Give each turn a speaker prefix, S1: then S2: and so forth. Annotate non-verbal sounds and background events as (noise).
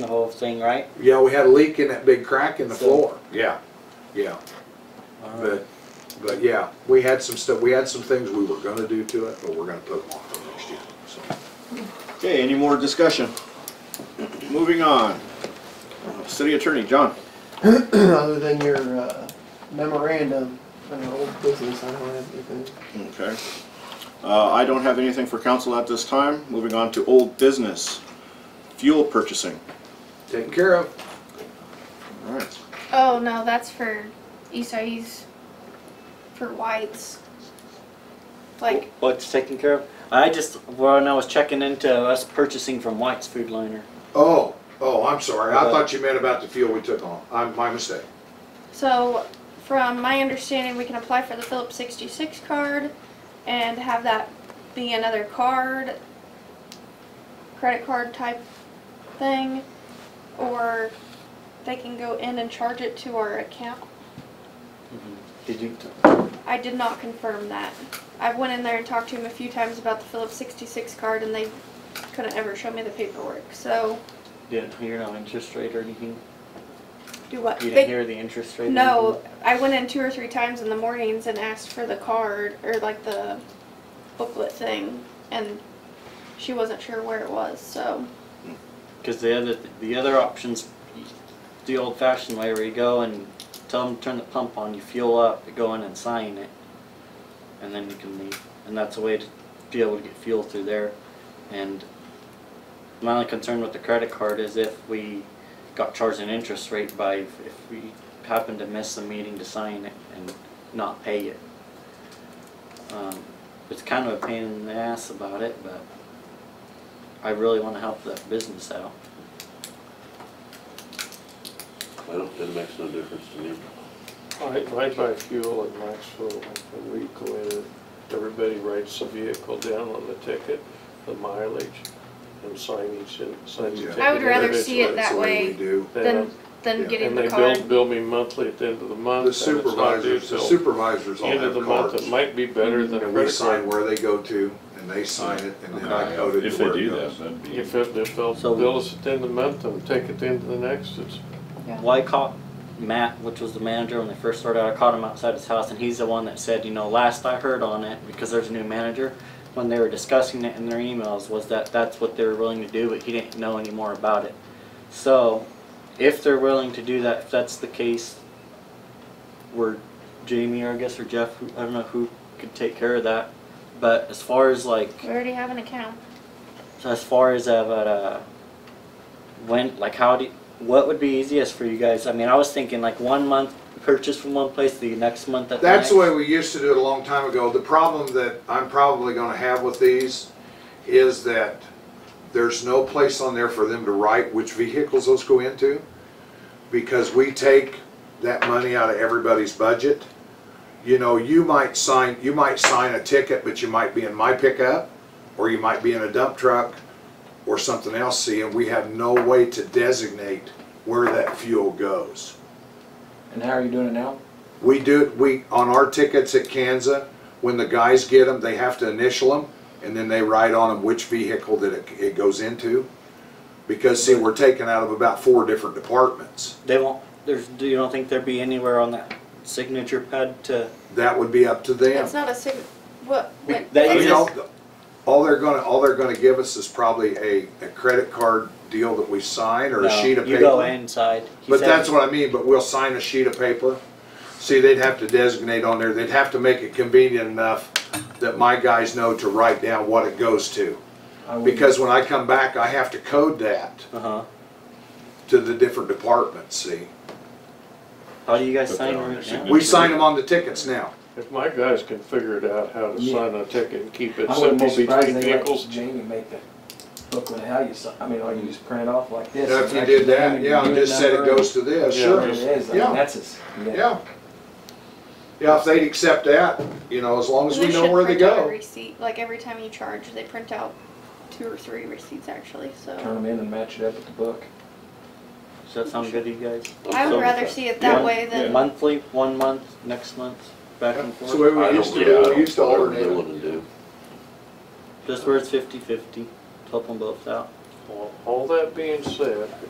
S1: the whole thing, right?
S2: Yeah, we had a leak in that big crack in the
S1: So-
S2: floor, yeah, yeah, but, but yeah, we had some stuff, we had some things we were gonna do to it, but we're gonna put them off till next year, so.
S3: Okay, any more discussion? Moving on. City Attorney, John.
S4: (clears throat) Other than your uh, memorandum, uh, old business, I don't have anything.
S3: Okay. Uh, I don't have anything for council at this time. Moving on to old business. Fuel purchasing.
S2: Taken care of,
S3: All right.
S5: Oh no, that's for Isai's for whites. Like
S1: What's taken care of? I just, when I was checking into us purchasing from White's Food Liner.
S2: oh, oh, I'm sorry, I
S1: Uh,
S2: thought you meant about the fuel we took on, I'm, my mistake.
S5: so from my understanding we can apply for the Phillips sixty six card and have that be another card credit card type thing or they can go in and charge it to our account.
S1: Did you?
S5: I did not confirm that. I went in there and talked to him a few times about the Phillips 66 card, and they couldn't ever show me the paperwork. So,
S1: Didn't hear no interest rate or anything?
S5: do what?
S1: You
S5: They-
S1: didn't hear the interest rate? or
S5: no, I went in two or three times in the mornings and asked for the card or like the booklet thing, and she wasn't sure where it was. So,
S1: Because the other, the other options, the old fashioned way where you go and tell them to turn the pump on, you fuel up, you go in and sign it. And then you can leave. And that's a way to be able to get fuel through there. And my only concern with the credit card is if we got charged an interest rate by, if we happen to miss the meeting to sign it and not pay it. Um, It's kind of a pain in the ass about it, but I really want to help that business out.
S6: I don't, that makes no difference to me.
S7: I, I buy fuel at Maxville, and we go in, everybody writes the vehicle down on the ticket, the mileage, and sign each, in- signs the
S2: Yeah.
S7: ticket.
S5: I would rather see it
S7: individually.
S2: That's
S5: that
S2: the
S5: way.
S2: We do.
S5: then then
S2: Yeah,
S5: getting
S7: And
S5: the
S7: they
S5: card.
S7: bill, bill me monthly at the end of the month,
S2: The
S7: and it's not due
S2: supervisors, the
S7: till
S2: supervisors all
S7: end of
S2: have
S7: the month,
S2: cards.
S7: it might be better than a
S2: And we
S7: credit
S2: sign
S7: card.
S2: where they go to, and they sign it, and then I code it
S8: If
S2: to
S8: they
S2: where it
S8: do
S2: goes.
S8: that, that'd be.
S7: If it, if they'll
S1: So-
S7: bill us at the end of the month and take it to the end of the next, it's,
S1: Well, I caught Matt, which was the manager when they first started out. I caught him outside his house, and he's the one that said, you know, last I heard on it, because there's a new manager, when they were discussing it in their emails, was that that's what they were willing to do, but he didn't know any more about it. So, if they're willing to do that, if that's the case, where Jamie or I guess or Jeff, who- I don't know who could take care of that. But as far as like
S5: we already have an account.
S1: so as far as uh, but, uh, when like how do you, what would be easiest for you guys? I mean, I was thinking like one month purchase from one place, the next month at
S2: That's
S1: the
S2: the way
S1: next.
S2: we used to do it a long time ago. The problem that I'm probably gonna have with these is that there's no place on there for them to write which vehicles those go into. Because we take that money out of everybody's budget. You know, you might sign, you might sign a ticket, but you might be in my pickup, or you might be in a dump truck, or something else, see, and we have no way to designate where that fuel goes.
S9: And how are you doing it now?
S2: We do, it. we, on our tickets at Kansas, when the guys get them, they have to initial them, and then they write on them which vehicle that it, it goes into. Because see, we're taken out of about four different departments.
S1: They won't. There's. Do you don't think there'd be anywhere on that signature pad to?
S2: That would be up to them.
S5: It's not a sig. What? what-
S1: That
S2: I
S1: you
S2: mean,
S1: just,
S2: all, all they're gonna, all they're gonna give us is probably a, a credit card deal that we sign or a
S1: no,
S2: sheet of paper.
S1: You go inside. He
S2: But
S1: said-
S2: that's what I mean, but we'll sign a sheet of paper. See, they'd have to designate on there, they'd have to make it convenient enough that my guys know to write down what it goes to.
S9: I would-
S2: Because when I come back, I have to code that
S1: Uh-huh.
S2: to the different departments, see?
S1: How do you guys
S8: Put
S1: sign
S8: that on
S1: right
S8: your
S1: now?
S2: We sign them on the tickets now.
S7: if my guys can figure it out how to
S9: Yeah.
S7: sign a ticket and keep it
S9: I wouldn't be
S7: simple
S9: surprised
S7: between
S9: they let
S7: vehicles.
S9: Jamie make the booklet, how you, si- I mean, all you just print it off like this.
S2: Now, if
S9: and
S2: you
S9: actually
S2: did
S9: name
S2: that,
S9: and
S2: yeah,
S9: unit
S2: just said it
S9: number
S2: goes to this,
S7: Yeah,
S9: and
S2: sure,
S9: It is, I mean,
S2: Yeah.
S9: that's his, yeah.
S2: yeah. Yeah, if they'd accept that, you know, as long as we
S5: They
S2: know
S5: should
S2: where they
S5: print out a
S2: go.
S5: receipt, like every time you charge, they print out two or three receipts actually,
S9: Turn
S5: so.
S9: them in and match it up with the book.
S1: Does that sound good to you guys?
S5: I would rather see it that
S1: One-
S5: way than,
S1: Monthly, one month, next month, back and
S2: That's the
S1: forth.
S2: way we used to do, it. we used to alternate
S6: Whatever they
S2: them.
S6: wanna do.
S1: Just where it's fifty-fifty, help them both out.
S7: Well, All that being said,